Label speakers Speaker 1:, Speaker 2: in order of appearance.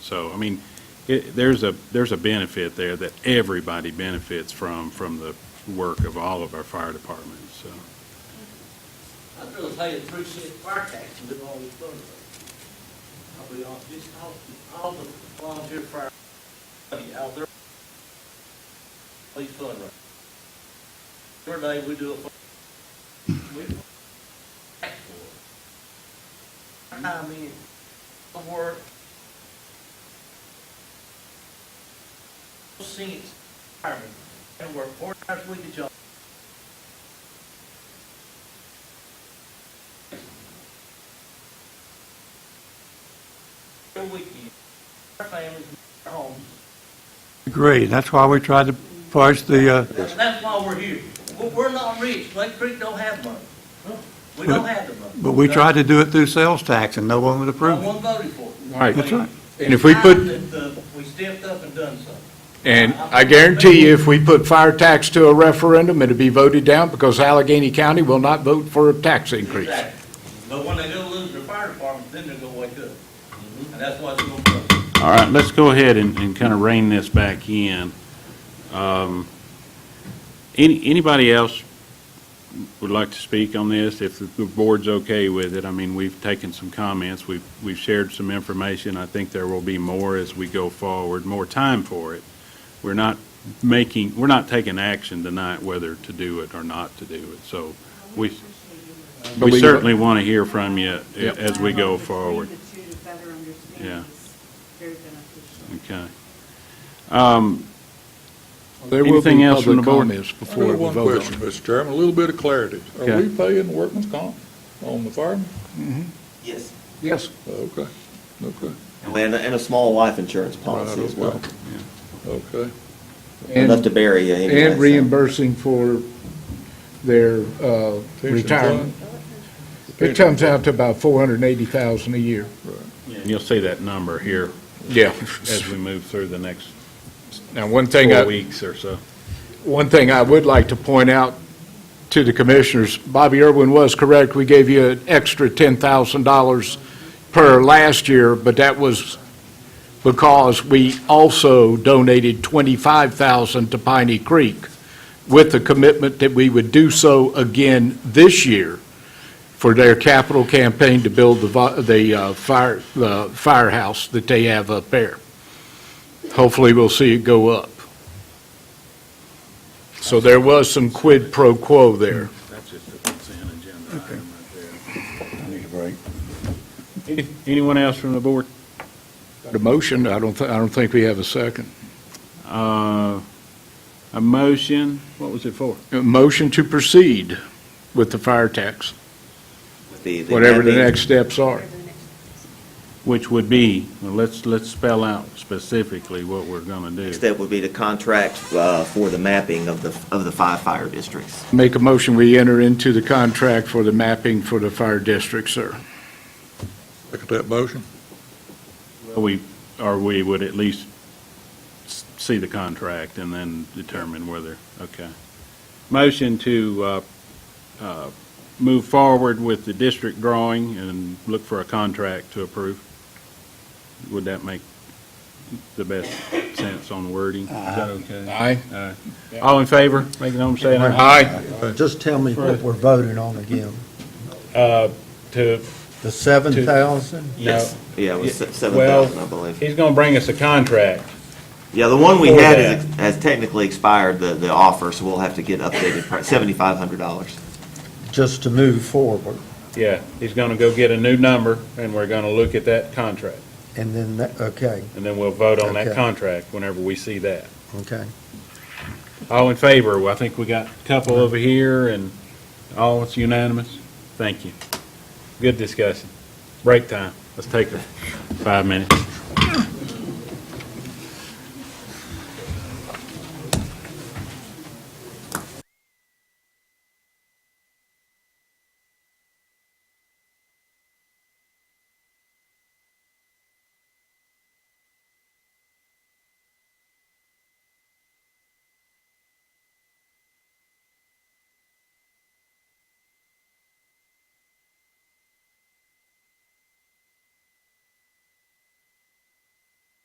Speaker 1: So, I mean, it, there's a, there's a benefit there that everybody benefits from, from the work of all of our fire departments, so.
Speaker 2: I'd really pay the three cent fire tax and do all this fundraising. I'll be honest, this, all, all the volunteer fire, money out there, please fundraise. Every day we do a fund. we- I mean, the work. Scenes, firemen, and work four times a week at job. Every weekend, our families, our homes.
Speaker 3: Agree, that's why we tried to push the, uh,
Speaker 2: And that's why we're here. We're, we're not rich. Lake Creek don't have money. We don't have the money.
Speaker 3: but we tried to do it through sales tax, and no one would
Speaker 2: No
Speaker 3: approve it.
Speaker 2: one voted for it.
Speaker 4: Right.
Speaker 3: That's right.
Speaker 4: And if we put-
Speaker 2: It's time that, uh, We stepped up and done something.
Speaker 4: And I guarantee you, if we put fire tax to a referendum, it'd be voted down because Allegheny County will not vote for a tax increase.
Speaker 2: Exactly. But when they go lose their fire department, then they're gonna wake up. And that's why it's gonna come.
Speaker 1: All right, let's go ahead and, and kind of rein this back in. Um, Any, anybody else would like to speak on this, if the board's okay with it? I mean, we've taken some comments, we've, we've shared some information, I think there will be more as we go forward, more time for it. We're not making, we're not taking action tonight whether to do it or not to do it, so we,
Speaker 4: But
Speaker 1: we
Speaker 4: we-
Speaker 1: certainly want to hear from you
Speaker 4: Yep.
Speaker 1: as we go
Speaker 5: Dialogue between
Speaker 1: forward.
Speaker 5: the two to better understand
Speaker 1: Yeah.
Speaker 5: is very beneficial.
Speaker 1: Okay.
Speaker 4: There will
Speaker 1: Anything
Speaker 4: be
Speaker 1: else from
Speaker 4: public
Speaker 1: the board?
Speaker 4: comments before we
Speaker 6: Only one
Speaker 4: vote on it.
Speaker 6: question, Mr. Chairman, a little bit of clarity. Are
Speaker 1: Okay.
Speaker 6: we paying workman's comp on the firemen?
Speaker 7: Yes,
Speaker 4: Yes.
Speaker 6: Okay, okay.
Speaker 7: and, and a small life insurance policy
Speaker 6: Right,
Speaker 7: as well,
Speaker 6: Okay.
Speaker 7: enough
Speaker 4: And
Speaker 7: to bury you anyway.
Speaker 4: and
Speaker 7: so.
Speaker 4: reimbursing for their uh,
Speaker 6: Pension
Speaker 4: retirement.
Speaker 1: uh,
Speaker 6: fund?
Speaker 4: It comes out to about 480,000 a year.
Speaker 1: And you'll see that number here
Speaker 4: Yeah.
Speaker 1: as we move through the next
Speaker 4: Now, one thing
Speaker 1: four
Speaker 4: I,
Speaker 1: weeks or so.
Speaker 4: One thing I would like to point out to the commissioners, Bobby Irwin was correct, we gave you an extra $10,000 per last year, but that was because we also donated 25,000 to Piney Creek with the commitment that we would do so again this year for their capital campaign to build the, vi- the uh, fire, the firehouse that they have up there. Hopefully, we'll see it go up. So there was some quid pro quo there.
Speaker 1: That's just a consent agenda item right
Speaker 3: I need a break.
Speaker 1: there. Anyone else from the board?
Speaker 4: The motion, I don't, thi- I don't think we have a second.
Speaker 1: Uh, A motion, what was it for?
Speaker 4: A motion to proceed with the fire tax,
Speaker 7: The- the-
Speaker 4: whatever the
Speaker 7: that being-
Speaker 4: next steps are.
Speaker 1: Which would be, well, let's, let's spell out specifically what we're going to
Speaker 7: Next
Speaker 1: do.
Speaker 7: step would be to contract, uh, for the mapping of the, of the five fire districts.
Speaker 4: Make a motion, we enter into the contract for the mapping for the fire district, sir.
Speaker 6: Look at that motion.
Speaker 1: We, or we would at least s- see the contract and then determine whether, okay. Motion to uh, uh, move forward with the district drawing and look for a contract to approve. Would that make the best sense on wording? Is that okay?
Speaker 4: Aye.
Speaker 1: All in favor? Make it home, say aye.
Speaker 4: Aye.
Speaker 8: Just tell me what we're voting on again.
Speaker 1: uh, To,
Speaker 8: The seven thousand?
Speaker 1: no,
Speaker 7: Yeah, it was seven
Speaker 1: well-
Speaker 7: thousand, I believe.
Speaker 1: he's going to bring us a contract.
Speaker 7: Yeah, the one we
Speaker 1: Before
Speaker 7: had is ex- has technically expired, the, the offer, so we'll have to get updated, seventy-five hundred dollars.
Speaker 8: Just to move forward.
Speaker 1: Yeah, he's going to go get a new number and we're going to look at that contract.
Speaker 8: And then, that- okay,
Speaker 1: And then we'll vote on that
Speaker 8: Okay.
Speaker 1: contract whenever we see that.
Speaker 8: okay.
Speaker 1: All in favor? Well, I think we got a couple over here and all, it's unanimous. Thank you. Good discussion. Break time. Let's take a five minutes.